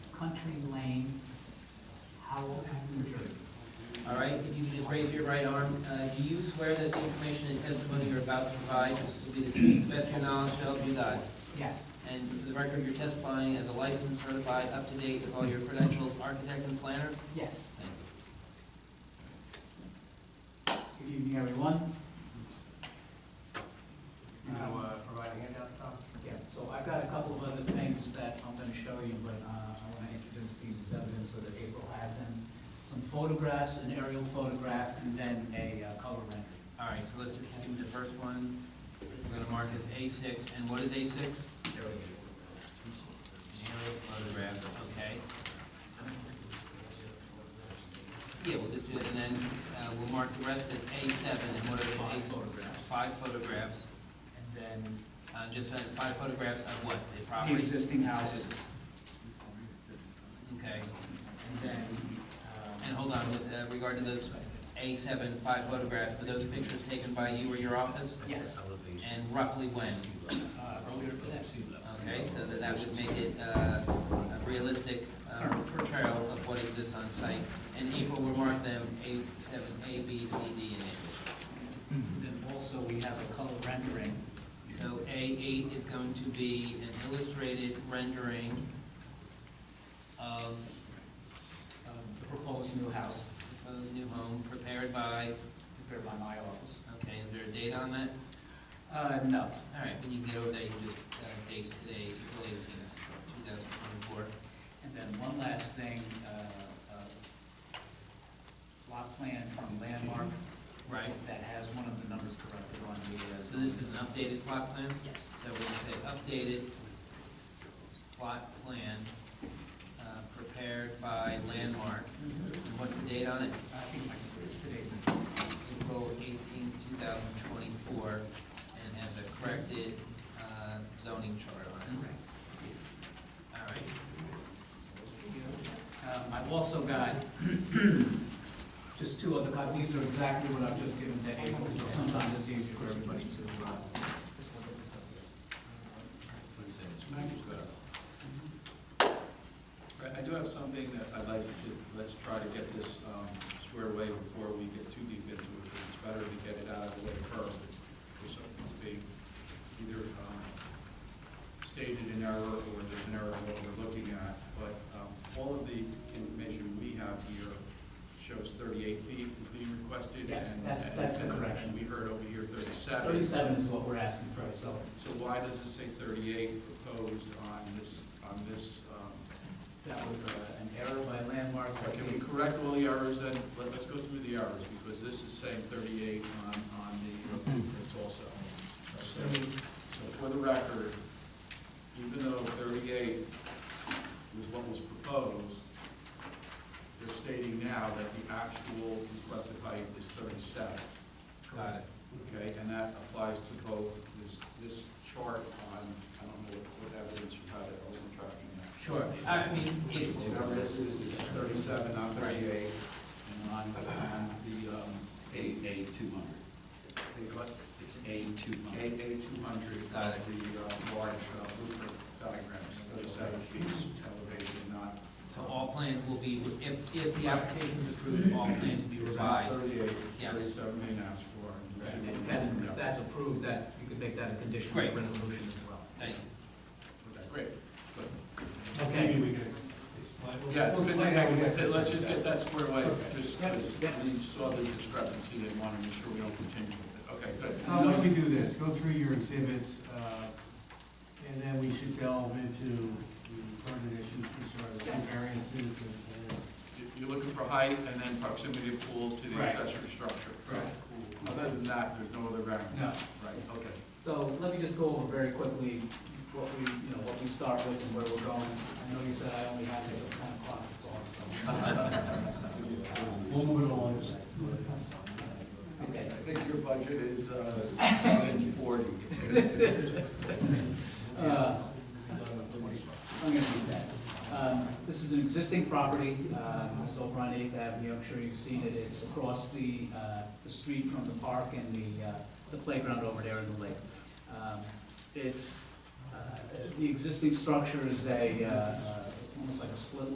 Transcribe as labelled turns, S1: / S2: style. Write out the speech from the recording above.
S1: raise your right arm. Uh, Do you swear that the information and testimony you're about to provide will be the truth, best of your knowledge, shall help you God?
S2: Yes,
S1: And for the record, you're testifying as a licensed, certified, up-to-date with all your credentials, architect and planner?
S2: yes.
S1: Thank you.
S2: Good evening, everyone.
S3: You know, uh, provide a handout, Tom?
S2: Yeah, so I've got a couple of other things that I'm gonna show you, but uh, I wanna introduce these as evidence so that April has them. Some photographs, an aerial photograph, and then a uh, color rendering.
S1: All right, so let's just do the first one. We're gonna mark as A six, and what is A six?
S3: There we go.
S1: Aerial photograph, okay. Yeah, we'll just do it, and then uh, we'll mark the rest as A seven, and what are the
S2: Five
S1: A-
S2: photographs.
S1: Five photographs,
S2: And then
S1: uh, just uh, five photographs of what, the
S2: the
S1: property?
S2: existing houses.
S1: Okay,
S2: And then,
S1: and
S2: um,
S1: hold on, with uh, regard to those A seven, five photographs, were those pictures taken by you or your office?
S2: yes,
S1: And roughly when?
S2: uh, earlier today.
S1: Okay, so then that would make it uh, a realistic uh, portrayal of what exists on site. And April will mark them A seven, A, B, C, D, and A.
S4: Then also, we have a color rendering.
S1: So A eight is going to be an illustrated rendering of
S2: of The proposed new house
S1: proposed new home prepared by,
S2: prepared by my office.
S1: okay, is there a date on that?
S2: Uh, no,
S1: All right, when you get over there, you just uh, date today, April eighteenth, two thousand twenty-four.
S2: And then one last thing, uh, uh, lot plan from Landmark
S1: Right,
S2: that has one of the numbers corrected on the. uh,
S1: so this is an updated plot plan?
S2: Yes.
S1: So when you say updated plot plan uh, prepared by Landmark, and what's the date on it?
S2: I think my- it's today's.
S1: April 18, 2024, and has a corrected uh, zoning chart on it. All right,
S2: Um, I've also got just two other copies. These are exactly what I've just given to April, so sometimes it's easier for everybody to. uh, just look at this up here.
S5: I- I do have something that I'd like to, do. let's try to get this um, squared away before we get too deep into it, because it's better to get it out of the way first, because something's being either um, stated in error or there's an error in what we're looking at, but um, all of the information we have here shows 38 feet is being requested.
S2: Yes,
S5: and-
S2: that's- that's the
S5: and-
S2: correction.
S5: And we heard over here 37.
S2: Thirty-seven is what we're asking for, so.
S5: So why does it say 38 proposed on this, on this um,
S2: That was uh, an error by Landmark. but
S5: Can we correct all the errors then? Let- Let's go through the errors, because this is saying 38 on, on the, it's also. So so for the record, even though 38 was what was proposed, they're stating now that the actual requested height is 37.
S1: got it.
S5: Okay, and that applies to both this, this chart on, I don't know what what evidence you had, I wasn't tracking that.
S1: Sure, I mean, it-
S5: Whatever this is, it's thirty-seven, not thirty-eight, and on, on the, um,
S4: A, A two hundred.
S5: the, what,
S4: It's A two
S5: A, A
S4: hundred.
S5: two hundred, the,
S1: Got it.
S5: uh, large uh, blueprint diagrams, thirty-seven feet elevation, not.
S1: so all plans will be, if, if the application is approved, all plans will be
S5: It's not
S1: revised.
S5: Thirty-eight,
S1: Yes.
S5: thirty-seven they asked for.
S2: And
S5: and
S2: if
S5: you
S2: that-
S5: should-
S2: if that's approved, that, you could make that a condition of the
S1: Great.
S2: resolution as well.
S1: Thank you.
S5: Okay, Great. Good.
S2: Okay.
S3: Maybe we could explain.
S5: Yeah,
S3: We'll
S5: but
S3: explain how we got
S5: let-
S3: to-
S5: let's just get that squared away, just,
S2: Yep,
S5: because
S2: yep.
S5: we saw the discrepancy, they want to make sure we don't continue with it. Okay, good.
S3: Tom, why don't we do this, go through your exhibits, uh, and then we should delve into the pertinent issues, which are the two variances and.
S5: You- You're looking for height and then proximity of pool to the
S3: Right.
S5: accessory structure.
S3: Correct.
S5: Other than that, there's no other variance.
S3: No.
S5: Right, okay.
S2: So let me just go over very quickly what we, you know, what we start with and where we're going. I know you said I only had until ten o'clock to talk, so.
S3: We'll move it along.
S2: Okay.
S5: I think your budget is uh, seven forty.
S2: Uh, I'm gonna read that. Um, This is an existing property, uh, it's over on Eighth Avenue, I'm sure you've seen it, it's across the, uh, the street from the park and the, uh, the playground over there in the lake. Um, It's, uh, the existing structure is a, uh, uh, almost like a split